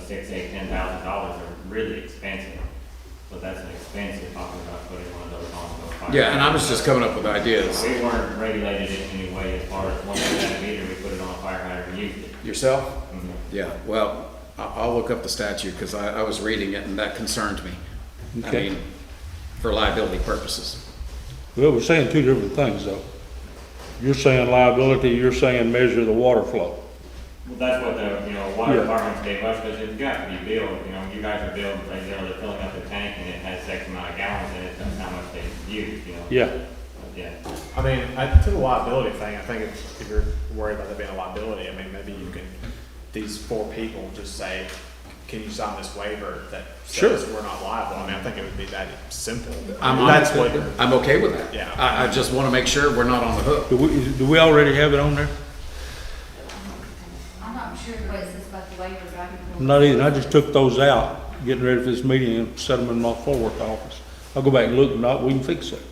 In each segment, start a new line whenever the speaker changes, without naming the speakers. six, eight, ten thousand dollars are really expensive. But that's an expense you're talking about putting one of those on those fires.
Yeah, and I was just coming up with ideas.
We weren't regulated in any way as far as once we got a meter, we put it on a fire hydrant and used it.
Yourself?
Mhm.
Mm-hmm.
Yeah, well, I- I'll look up the statute because I, I was reading it and that concerns me. I
Okay.
mean, for liability purposes.
Well, we're saying two different things, though. You're saying liability, you're saying measure the water flow.
Well, that's what the, you know, water
Yeah.
department gave us, because it's got to be billed, you know, you guys are billed, like, you know, they're filling up the tank and it has X amount of gallons in it, that's how much they use, you know?
Yeah,
Yeah.
I mean, I, to the liability thing, I think if, if you're worried about there being a liability, I mean, maybe you can, these four people just say, can you sign this waiver that says we're not liable? I mean, I think it would be that simple.
I'm,
That's
I'm,
what,
I'm okay with that.
Yeah.
I, I just want to make sure we're not on the hook.
do we, do we already have it on there?
I'm not sure what it says about the waivers, but I can. pull it.
I'm Not even, I just took those out, getting ready for this meeting and set them in my forward office. I'll go back and look, and not, we can fix it.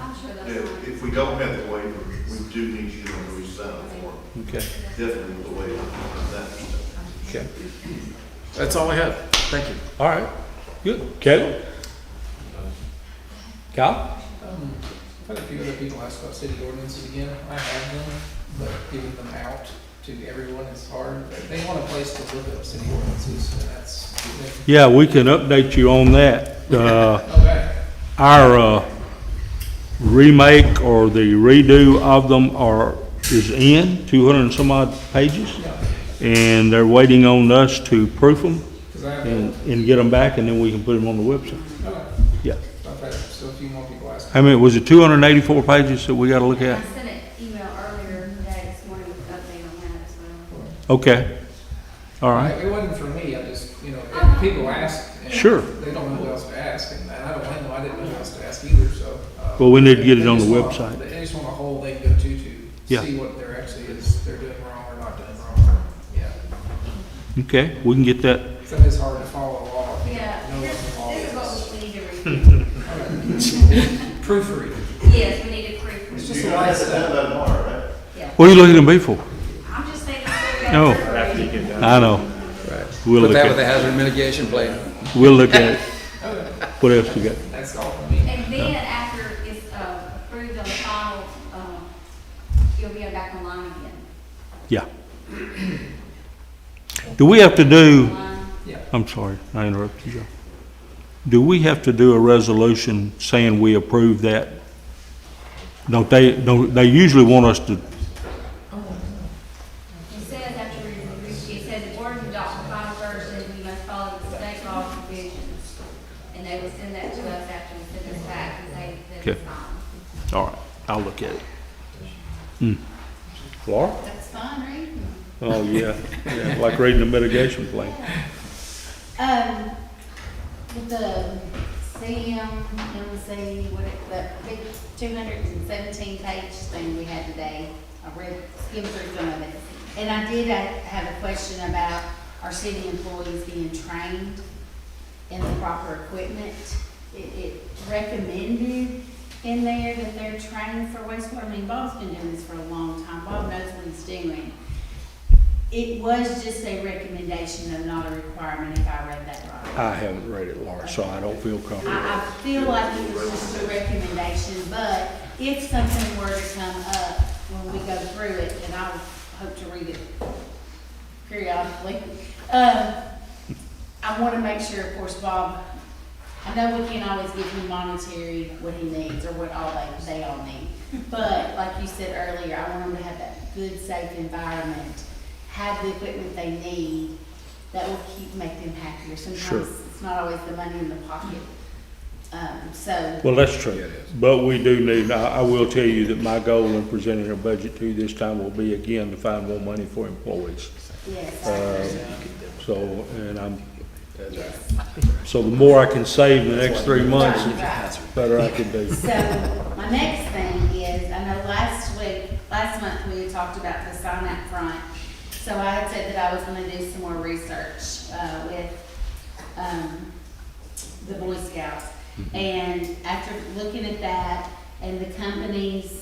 I'm sure that's.
If,
fine.
if we don't have the waiver, we do need you to resign the form,
Okay,
definitely with the waiver, that's.
Okay. That's all I have. Thank you.
all right, good. Caleb? Kyle?
Um, I've had a few other people ask about city ordinances again. I have them, but giving them out to everyone is hard. They want a place to look up city ordinances, and that's,
Yeah, we can update you on that. Uh,
okay.
our uh, remake or the redo of them are, is in, two hundred and some odd pages. And they're waiting on us to proof them
Because I
and,
have,
and get them back, and then we can put them on the website.
okay,
Yeah.
I've had still a few more people ask.
I mean, was it two hundred and eighty-four pages that we gotta look
I
at?
sent an email earlier today, this morning, with an update on that as well.
Okay. All right.
It wasn't for me, I just, you know, if people ask. and
Sure.
They don't know who else to ask, and and I don't blame them, I didn't know who else to ask either, so. uh,
Well, we need to get it
they
on the
just want-
website.
They just want a whole they can go to to
Yeah.
see what they're actually is, they're doing wrong or not doing wrong, yeah.
Okay, we can get that.
So it's hard to follow along.
Yeah,
No
this,
one's involved.
this is what we need to review.
Proofread.
Yes, we need to proof.
It's
read.
just
You
a
don't
lot of
have to
stuff.
done by tomorrow, right?
Yeah,
What are you looking at me for?
I'm just saying. that we've got
No.
proof
after you
reading.
get done.
I know.
Right.
We'll
Put
look
that with the
at,
hazard mitigation plan.
we'll look at it. What else you got?
That's all for me.
And then after it's, uh, approved on the final, um, you'll be back online again.
Yeah. Do we have to do?
Online.
I'm sorry, I interrupted you. Do we have to do a resolution saying we approve that? Don't they, don't, they usually want us to,
It says after we, we- it says the board adopts the final version, we must follow the state law provisions. And they will send that to us after we send this back and say that
Okay.
it's fine.
all right, I'll look at it. Hmm. Laura?
That's fine, right?
Oh, yeah, yeah, like reading a mitigation plan.
Um, with the CMMC, what it, that big two hundred and seventeen page thing we had today, I read, skimmed through some of it. And I did, I have a question about our city employees being trained in the proper equipment. It, it recommended in there that they're trained for wastewater, I mean, Bob's been doing this for a long time, Bob knows what he's doing. It was just a recommendation, though not a requirement, if I read that right.
I haven't read it, Laura, so I don't feel comfortable.
I, I feel like it was just a recommendation, but if something were to come up when we go through it, and I hope to read it periodically, um, I want to make sure, of course, Bob, I know we can't always give him monetary what he needs or what all they, they all need. But like you said earlier, I want them to have that good, safe environment, have the equipment they need that will keep, make them happier.
Sure.
Sometimes it's not always the money in the pocket. Um, so,
Well, that's true, but we do need, I, I will tell you that my goal in presenting a budget to you this time will be again to find more money for employees.
yes,
Uh,
I agree.
So, and I'm,
yes.
so the more I can save in the next three months, the
Right, right.
better I can do.
So, my next thing is, I know last week, last month, we had talked about the sign up front. So I had said that I was gonna do some more research, uh, with, um, the Boy Scouts. And after looking at that and the companies